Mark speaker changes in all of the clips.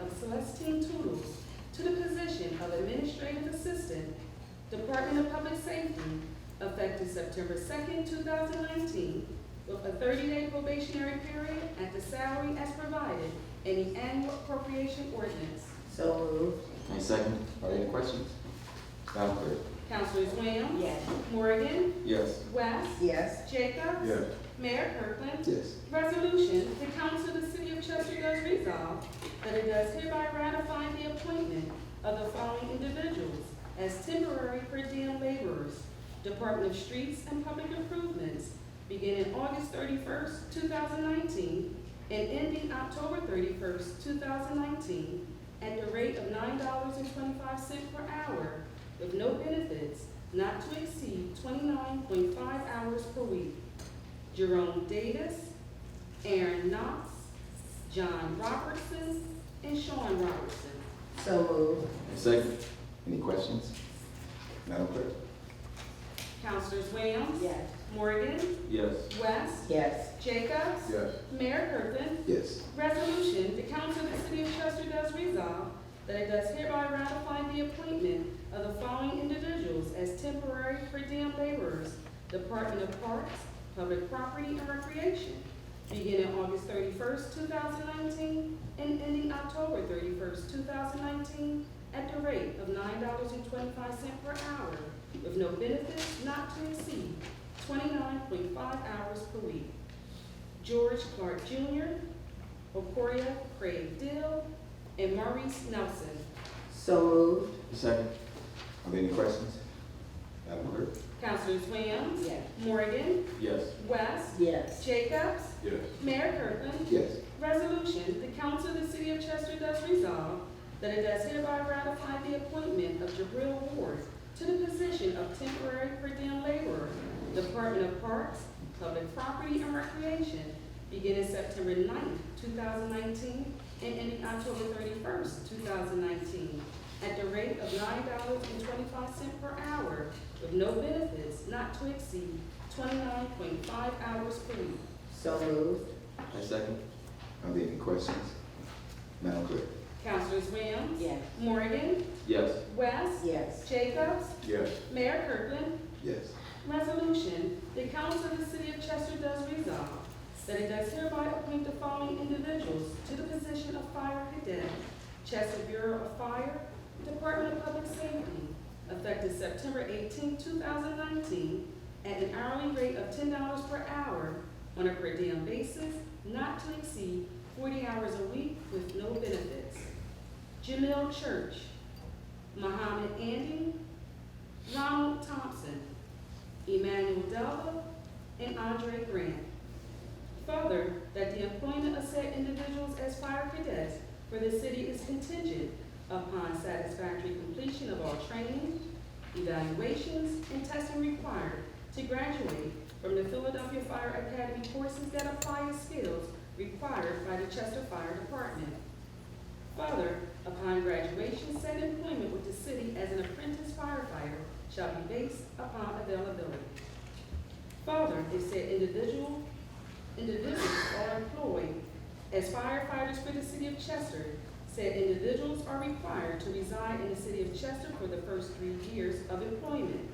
Speaker 1: of Celestine Toodles to the position of Administrative Assistant, Department of Public Safety, effective September second, two thousand nineteen, with a thirty-day probationary period at the salary as provided in the annual appropriation ordinance.
Speaker 2: So moved.
Speaker 3: Any second? Are there any questions? Madam Clerk?
Speaker 1: Councilors Williams,
Speaker 2: Yes.
Speaker 1: Morgan,
Speaker 3: Yes.
Speaker 1: West,
Speaker 2: Yes.
Speaker 1: Jacobs.
Speaker 4: Yes.
Speaker 1: Mayor Kirkland.
Speaker 3: Yes.
Speaker 1: Resolution, the Council of the City of Chester does resolve that it does hereby ratify the appointment of the following individuals as temporary per diem laborers, Department of Streets and Public Improvements, beginning August thirty-first, two thousand nineteen, and ending October thirty-first, two thousand nineteen, at the rate of nine dollars and twenty-five cents per hour, with no benefits, not to exceed twenty-nine point five hours per week. Jerome Davis, Aaron Knox, John Robertson, and Sean Robertson.
Speaker 2: So moved.
Speaker 3: Any second? Any questions? Madam Clerk?
Speaker 1: Councilors Williams,
Speaker 2: Yes.
Speaker 1: Morgan,
Speaker 3: Yes.
Speaker 1: West,
Speaker 2: Yes.
Speaker 1: Jacobs,
Speaker 4: Yes.
Speaker 1: Mayor Kirkland.
Speaker 3: Yes.
Speaker 1: Resolution, the Council of the City of Chester does resolve that it does hereby ratify the appointment of the following individuals as temporary per diem laborers, Department of Parks, Public Property and Recreation, beginning August thirty-first, two thousand nineteen, and ending October thirty-first, two thousand nineteen, at the rate of nine dollars and twenty-five cent per hour, with no benefits not to exceed twenty-nine point five hours per week. George Clark Jr., Okoria Craig Dill, and Maurice Nelson.
Speaker 2: So moved.
Speaker 3: Second? Are there any questions? Madam Clerk?
Speaker 1: Councilors Williams,
Speaker 2: Yes.
Speaker 1: Morgan,
Speaker 3: Yes.
Speaker 1: West,
Speaker 2: Yes.
Speaker 1: Jacobs,
Speaker 4: Yes.
Speaker 1: Mayor Kirkland.
Speaker 3: Yes.
Speaker 1: Resolution, the Council of the City of Chester does resolve that it does hereby ratify the appointment of Jabril Ward to the position of temporary per diem laborer, Department of Parks, Public Property and Recreation, beginning September 9th, two thousand nineteen, and ending October thirty-first, two thousand nineteen, at the rate of nine dollars and twenty-five cents per hour, with no benefits not to exceed twenty-nine point five hours per week.
Speaker 2: So moved.
Speaker 3: Any second? Are there any questions? Madam Clerk?
Speaker 1: Councilors Williams?
Speaker 2: Yes.
Speaker 1: Morgan?
Speaker 3: Yes.
Speaker 1: West?
Speaker 2: Yes.
Speaker 1: Jacobs?
Speaker 4: Yes.
Speaker 1: Mayor Kirkland?
Speaker 3: Yes.
Speaker 1: Resolution, the Council of the City of Chester does resolve that it does hereby appoint the following individuals to the position of fire cadet, Chester Bureau of Fire, Department of Public Safety, effective September 18, thousand nineteen, at an hourly rate of ten dollars per hour on a per diem basis, not to exceed forty hours a week with no benefits. Jamil Church, Muhammad Andy, Ronald Thompson, Emmanuel Delva, and Andre Grant. Further, that the employment of said individuals as fire cadets for the city is contingent upon satisfactory completion of all training, evaluations, and testing required to graduate from the Philadelphia Fire Academy courses that apply the skills required by the Chester Fire Department. Further, upon graduation, said employment with the city as an apprentice firefighter shall be based upon availability. Further, if said individual, individuals are employed as firefighters for the city of Chester, said individuals are required to reside in the city of Chester for the first three years of employment.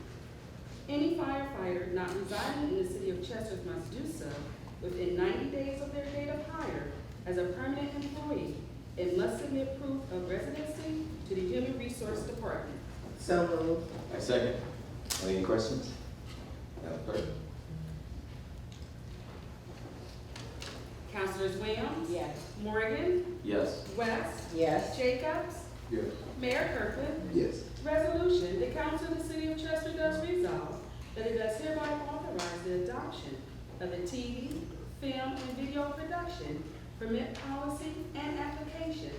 Speaker 1: Any firefighter not residing in the city of Chester must do so within ninety days of their date of hire as a permanent employee and must submit proof of residency to the Human Resource Department.
Speaker 2: So moved.
Speaker 3: Any second? Are there any questions? Madam Clerk?
Speaker 1: Councilors Williams?
Speaker 2: Yes.
Speaker 1: Morgan?
Speaker 3: Yes.
Speaker 1: West?
Speaker 2: Yes.
Speaker 1: Jacobs?
Speaker 4: Yes.
Speaker 1: Mayor Kirkland?
Speaker 3: Yes.
Speaker 1: Resolution, the Council of the City of Chester does resolve that it does hereby authorize the adoption of the TV, film, and video production permit policy and application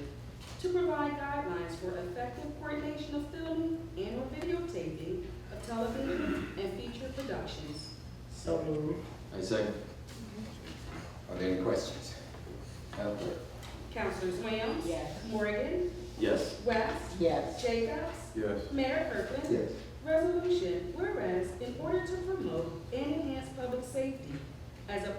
Speaker 1: to provide guidelines for effective coordination of filming and or videotaping of television and feature productions.
Speaker 2: So moved.
Speaker 3: Any second? Are there any questions? Madam Clerk?
Speaker 1: Councilors Williams?
Speaker 2: Yes.
Speaker 1: Morgan?
Speaker 3: Yes.
Speaker 1: West?
Speaker 2: Yes.
Speaker 1: Jacobs?
Speaker 4: Yes.
Speaker 1: Mayor Kirkland?
Speaker 3: Yes.
Speaker 1: Resolution, whereas in order to promote and enhance public safety as a